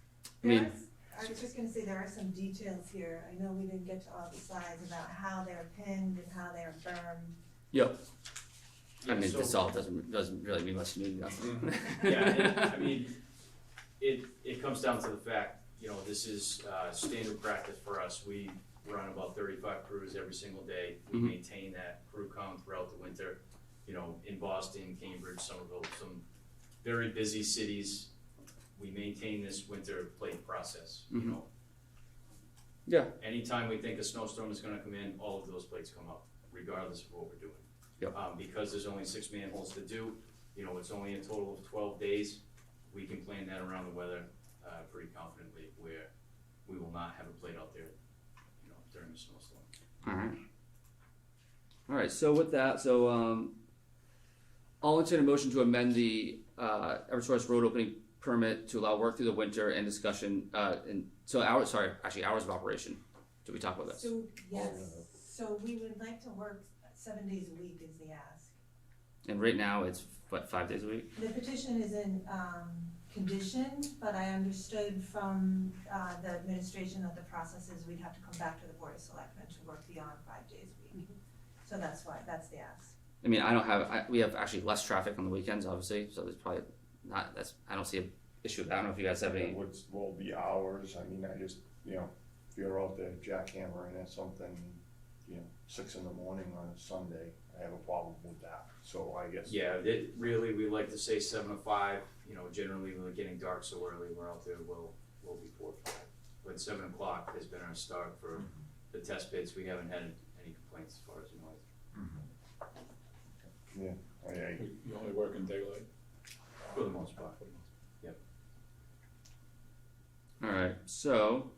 I There mean- are s- I was just gonna say, there are some details here, I know we didn't get to all the slides about how they're pinned and how they're firm. I mean, so- this all doesn't, doesn't really mean much to me. Mhm. Yeah, and, I mean, it, it comes down to the fact, you know, this is, uh, standard practice for us. We run about thirty-five crews every single day. We Mhm. maintain that crew count throughout the winter, you know, in Boston, Cambridge, Somerville, some very busy cities. We maintain this winter plate process, you Mhm. know. Yeah. Anytime we think a snowstorm is gonna come in, all of those plates come up, regardless of what we're doing. Yep. Um, because there's only six manholes to do, you know, it's only a total of twelve days. We can plan that around the weather, uh, pretty confidently where we will not have a plate out there, you know, during the snowstorm. Alright. Alright, so with that, so, um, I'll entertain a motion to amend the, uh, Eversource road opening permit to allow work through the winter and discussion, uh, and, so hours, sorry, actually hours of operation. Did we talk about this? So, yes, so we would like to work seven days a week is the ask. And right now, it's, what, five days a week? The petition is in, um, condition, but I understood from, uh, the administration that the process is we'd have to come back to the board of selectmen to work beyond five days a week. Mm-hmm. So that's why, that's the ask. I mean, I don't have, I, we have actually less traffic on the weekends, obviously, so there's probably not, that's, I don't see an issue with that. I don't know if you guys have any, What's, what will be hours, I mean, I just, you know, if you're out there jackhammering at something, you know, six in the morning on a Sunday, I have a problem with that, so I guess. Yeah, it, really, we like to say seven to five, you know, generally we're getting dark so early, we're out there well, well before five. But seven o'clock has been our start for the test pits, we haven't had any complaints as far as noise. I, I, You you only work in daylight? For the most part. alright, so.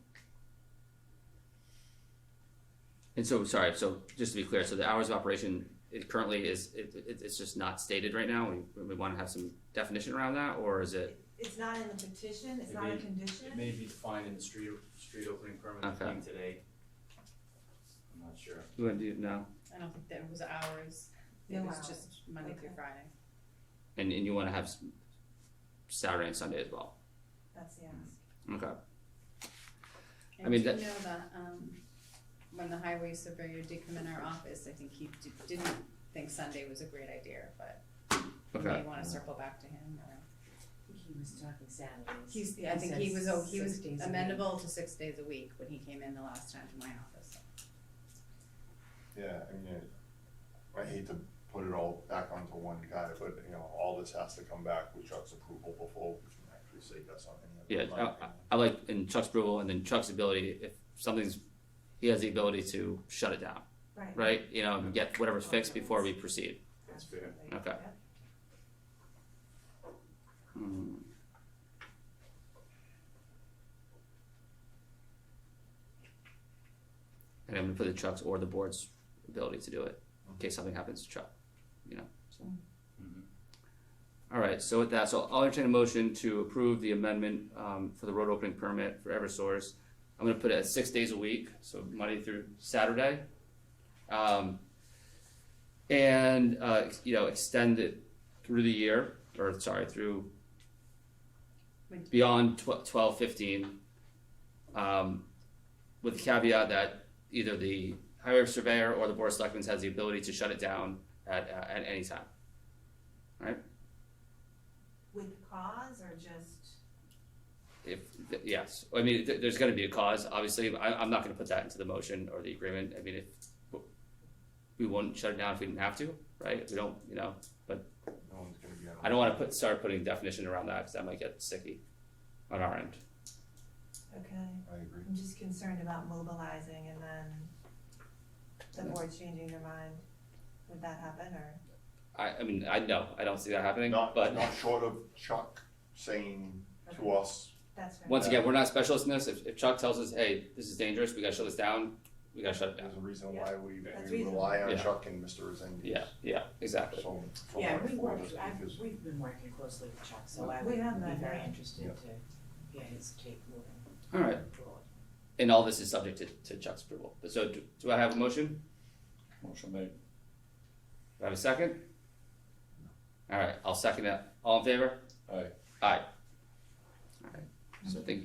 And so, sorry, so just to be clear, so the hours of operation, it currently is, it, it, it's just not stated right now, we, we wanna have some definition around that, or is it? It's not in the petition, it's not a Maybe- condition. It may be defined in the street, street opening permit that Okay. came today. I'm not sure. You wanna do, no, I don't think that was hours, it No was hours. just Monday through Okay. Friday. and, and you wanna have s- Saturday and Sunday as well, That's the ask. okay, I mean, that- And do you know that, um, when the highway surveyor did come in our office, I think he d- didn't think Sunday was a great idea, but we may okay, wanna circle back to him, or, He was talking Saturdays. he's, I think he was, oh, he was Six days a week. amendable to six days a week when he came in the last time to my office. yeah, I mean, I- I hate to put it all back onto one guy, but, you know, all this has to come back with Chuck's approval before we can actually say yes on any yeah, of it. I, I- I like, in Chuck's approval, and then Chuck's ability, if something's, he has the ability to shut it down, Right. right? You know, and get whatever's fixed before we proceed. That's fair. Absolutely. Okay. Yep. Hmm. And I'm gonna put the Chuck's or the board's ability to do it, in case something happens to Chuck, you know, so. Mhm. Alright, so with that, so I'll entertain a motion to approve the amendment, um, for the road opening permit for Eversource. I'm gonna put it at six days a week, so Monday through Saturday. Um, and, uh, you know, extend it through the year, or sorry, through Winter. beyond tw- twelve fifteen, um, with the caveat that either the highway surveyor or the board of selectmen has the ability to shut it down at uh, at any time. With cause or just, If th- yes, I mean th- there's going to be a cause. Obviously, but I, I'm not going to put that into the motion or the agreement. I mean, if w- we wouldn't shut it down if we didn't have to, right? We don't, you know. No one's gonna be. on- I don't want to put start putting definition around that because that might get sticky on our end. okay, I agree. I'm just concerned about mobilizing and then the board changing their mind. Would that happen or? I, I mean, I know I don't see that happening, Not, but not short of Chuck saying to Okay, us, That's fair. Once again, we're not specialists in this. If, if Chuck tells us, hey, this is dangerous, we gotta shut this down, we gotta shut it down. There's a reason why we, That's we rely on reasonable. Chuck and Mr. Resendez. Yeah, yeah, exactly. So. so Yeah, much we for work, this I've, because- we've been working closely with Chuck, so I We would have be that, very yeah. interested Yeah. to, yeah, his take moving All right, forward. and all this is subject to, to Chuck's approval. So do, do I have a motion? Motion made. Do I have a second? All right, I'll second that. All in favor? Aye. Aye. All right, so I think